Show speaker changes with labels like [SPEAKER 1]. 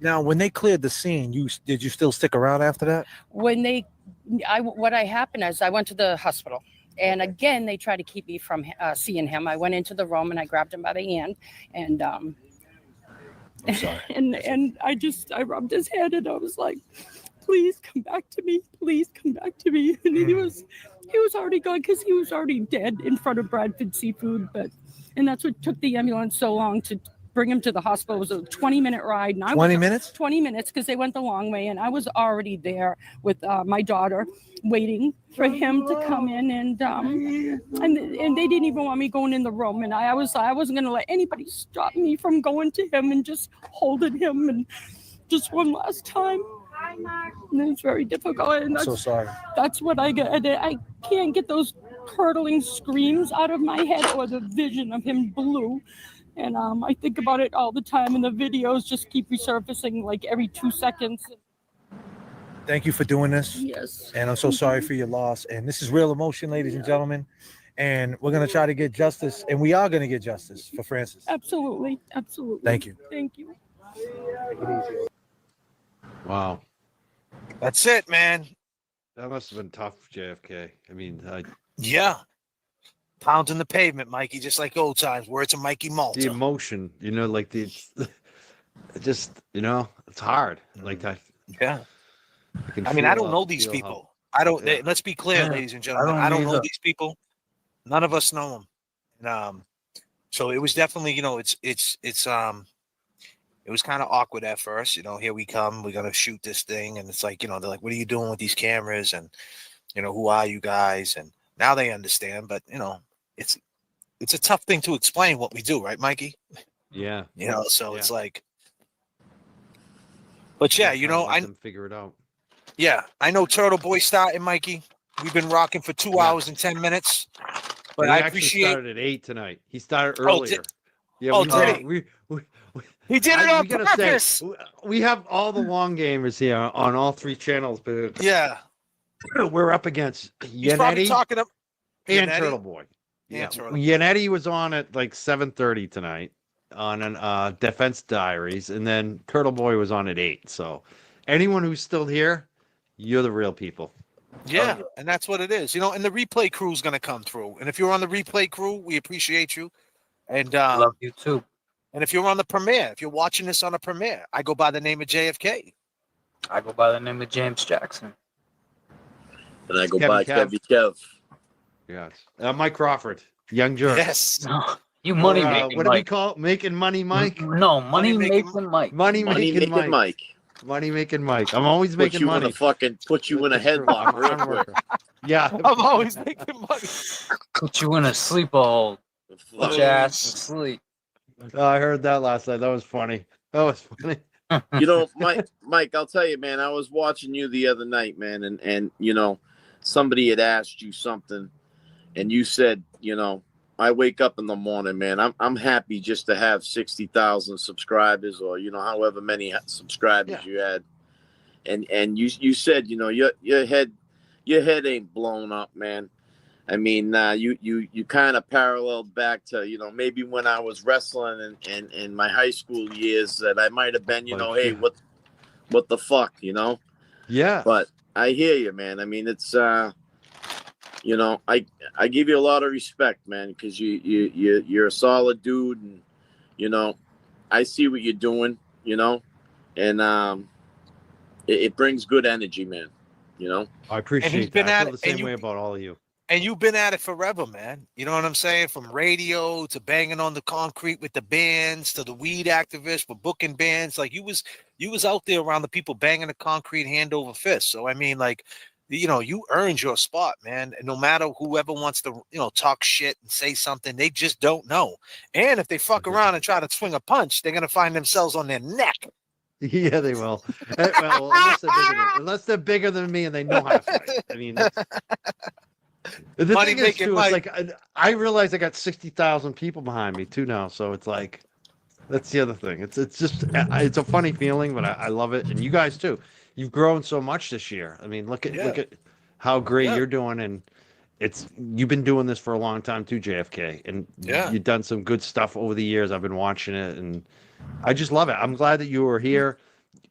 [SPEAKER 1] Now, when they cleared the scene, you s- did you still stick around after that?
[SPEAKER 2] when they i what i happened is i went to the hospital and again they tried to keep me from uh, seeing him i went into the room and i grabbed him by the hand and um
[SPEAKER 1] I'm sorry.
[SPEAKER 2] and and i just i rubbed his head and i was like please come back to me please come back to me and he was he was already gone because he was already dead in front of bradford seafood but and that's what took the ambulance so long to bring him to the hospital it was a 20 minute ride and i was
[SPEAKER 1] Twenty minutes.
[SPEAKER 2] 20 minutes because they went the long way and i was already there with uh, my daughter waiting for him to come in and um and and they didn't even want me going in the room and i, I was i wasn't going to let anybody stop me from going to him and just holding him and just one last time and it's very difficult and
[SPEAKER 1] I'm
[SPEAKER 2] that's,
[SPEAKER 1] so sorry.
[SPEAKER 2] that's what i get i can't get those curdling screams out of my head or the vision of him blue and um, i think about it all the time and the videos just keep resurfacing like every two seconds
[SPEAKER 1] Thank you for doing this.
[SPEAKER 2] yes
[SPEAKER 1] And I'm so sorry for your loss. And this is real emotion, ladies and gentlemen. And we're gonna try to get justice, and we are gonna get justice for Francis.
[SPEAKER 2] absolutely absolutely
[SPEAKER 1] Thank you.
[SPEAKER 2] thank you
[SPEAKER 3] Wow.
[SPEAKER 1] That's it, man.
[SPEAKER 3] That must have been tough, JFK. I mean, I,
[SPEAKER 1] Yeah. Pounding the pavement, Mikey, just like old times. Words of Mikey
[SPEAKER 3] the
[SPEAKER 1] Malta.
[SPEAKER 3] emotion, you know, like the, it just, you know, it's hard.
[SPEAKER 1] Mm-hmm.
[SPEAKER 3] Like I,
[SPEAKER 4] Yeah.
[SPEAKER 3] I, can
[SPEAKER 4] I mean, I
[SPEAKER 3] feel
[SPEAKER 4] don't
[SPEAKER 3] how-
[SPEAKER 4] know these
[SPEAKER 3] feel how-
[SPEAKER 4] people. I don't.
[SPEAKER 3] Yeah.
[SPEAKER 4] Let's be clear,
[SPEAKER 1] Yeah.
[SPEAKER 4] ladies and gentlemen.
[SPEAKER 1] don't
[SPEAKER 4] I don't, know
[SPEAKER 1] either.
[SPEAKER 4] these people. None of us know them. And, um, so it was definitely, you know, it's it's it's um, it was kind of awkward at first. You know, here we come. We're gonna shoot this thing, and it's like, you know, they're like, "What are you doing with these cameras?" And you know, who are you guys? And now they understand. But you know, it's it's a tough thing to explain what we do, right, Mikey?
[SPEAKER 3] Yeah.
[SPEAKER 4] You know, so it's like. But yeah, you
[SPEAKER 3] kinda
[SPEAKER 4] know,
[SPEAKER 3] let
[SPEAKER 4] I
[SPEAKER 3] them figure it out.
[SPEAKER 4] yeah, I know Turtle Boy starting, Mikey. We've been rocking for two
[SPEAKER 3] Yeah.
[SPEAKER 4] hours and ten minutes, but
[SPEAKER 3] he
[SPEAKER 4] I
[SPEAKER 3] actually
[SPEAKER 4] appreciate.
[SPEAKER 3] started at eight tonight. He started
[SPEAKER 4] Oh, di-
[SPEAKER 3] earlier. yeah,
[SPEAKER 4] oh,
[SPEAKER 3] we,
[SPEAKER 4] did
[SPEAKER 3] did
[SPEAKER 4] he?
[SPEAKER 3] we, we, we,
[SPEAKER 4] He did it
[SPEAKER 3] I-
[SPEAKER 4] on
[SPEAKER 3] we gotta say,
[SPEAKER 4] purpose.
[SPEAKER 3] w- we have all the long gamers here on all three channels, but
[SPEAKER 4] yeah,
[SPEAKER 3] we're up against
[SPEAKER 4] he's probably
[SPEAKER 3] Yannetti
[SPEAKER 4] talking. To,
[SPEAKER 3] and
[SPEAKER 4] Yannetti.
[SPEAKER 3] Turtle Boy. Yeah,
[SPEAKER 4] And Turtle Boy.
[SPEAKER 3] Yannetti was on at like seven thirty tonight on an uh, Defense Diaries, and then Turtle Boy was on at eight. So, anyone who's still here, you're the real people.
[SPEAKER 4] yeah, and that's what it is, you know. And the replay crew's gonna come through. And if you're on the replay crew, we appreciate you. And
[SPEAKER 1] I
[SPEAKER 4] um,
[SPEAKER 1] you too.
[SPEAKER 4] and if you're on the premiere, if you're watching this on a premiere, I go by the name of JFK.
[SPEAKER 5] I go by the name of James Jackson.
[SPEAKER 6] And I go
[SPEAKER 3] Kevin
[SPEAKER 6] by
[SPEAKER 3] Kev.
[SPEAKER 6] Kevin Kev.
[SPEAKER 3] Yes, uh, Mike Crawford, Young Jerk.
[SPEAKER 4] Yes,
[SPEAKER 5] No, you
[SPEAKER 3] Or,
[SPEAKER 5] money
[SPEAKER 3] uh,
[SPEAKER 5] making
[SPEAKER 3] what do we
[SPEAKER 5] Mike.
[SPEAKER 3] call it? making money, Mike?
[SPEAKER 5] No, money
[SPEAKER 4] Money-making
[SPEAKER 5] making Mike.
[SPEAKER 3] Money,
[SPEAKER 6] Money
[SPEAKER 3] making, Mike.
[SPEAKER 6] making Mike.
[SPEAKER 3] Money making Mike. I'm always
[SPEAKER 6] Put
[SPEAKER 3] making
[SPEAKER 6] you
[SPEAKER 3] money.
[SPEAKER 6] in a fucking put you in a
[SPEAKER 3] That's true. I'm a
[SPEAKER 6] headlock real
[SPEAKER 3] farm
[SPEAKER 6] quick.
[SPEAKER 3] worker. Yeah.
[SPEAKER 4] I'm always making money.
[SPEAKER 5] Put you in a sleep hole. Put your ass to sleep.
[SPEAKER 3] Oh, I heard that last night. That was funny. That was funny.
[SPEAKER 6] you know, Mike, Mike, I'll tell you, man, I was watching you the other night, man, and and you know, somebody had asked you something, and you said, you know, I wake up in the morning, man. I'm I'm happy just to have sixty thousand subscribers, or you know, however many subscribers you had, and and you you said, you know, your your head your head ain't blown up, man. I mean, uh, you you you kind of paralleled back to you know maybe when I was wrestling and and in my high school years that I might have been you
[SPEAKER 3] my
[SPEAKER 6] know hey
[SPEAKER 3] God.
[SPEAKER 6] what what the fuck you know
[SPEAKER 3] Yeah.
[SPEAKER 6] but I hear you man I mean it's uh you know I I give you a lot of respect man because you you you you're a solid dude and you know I see what you're doing you know and um it, it brings good energy man you know
[SPEAKER 3] I appreciate
[SPEAKER 4] been
[SPEAKER 3] that. I
[SPEAKER 4] at
[SPEAKER 3] feel the
[SPEAKER 4] it, and
[SPEAKER 3] same
[SPEAKER 4] you-
[SPEAKER 3] way about all of you.
[SPEAKER 4] And you've been at it forever, man. You know what I'm saying? From radio to banging on the concrete with the bands to the weed activists for booking bands. Like you was you was out there around the people banging the concrete hand over fist. So I mean, like, you know, you earned your spot, man. And no matter whoever wants to, you know, talk shit and say something, they just don't know. And if they fuck
[SPEAKER 3] Mhm.
[SPEAKER 4] around and try to swing a punch, they're gonna find themselves on their neck.
[SPEAKER 3] Yeah, they will. Eh, well, unless, they're bigger than, unless they're bigger than me and they know how to fight. I mean, that's- the
[SPEAKER 4] Money
[SPEAKER 3] thing is,
[SPEAKER 4] making
[SPEAKER 3] too,
[SPEAKER 4] Mike.
[SPEAKER 3] it's like I, I realize I got sixty thousand people behind me too now, so it's like that's the other thing. It's it's just eh, I- it's a funny feeling, but I, I love it, and you guys too. You've grown so much this year. I mean, look at look at how great
[SPEAKER 4] Yeah.
[SPEAKER 3] you're doing, and it's you've been doing this for a long time too, JFK, and
[SPEAKER 4] Yeah.
[SPEAKER 3] you've done some good stuff over the years. I've been watching it, and I just love it. I'm glad that you were here.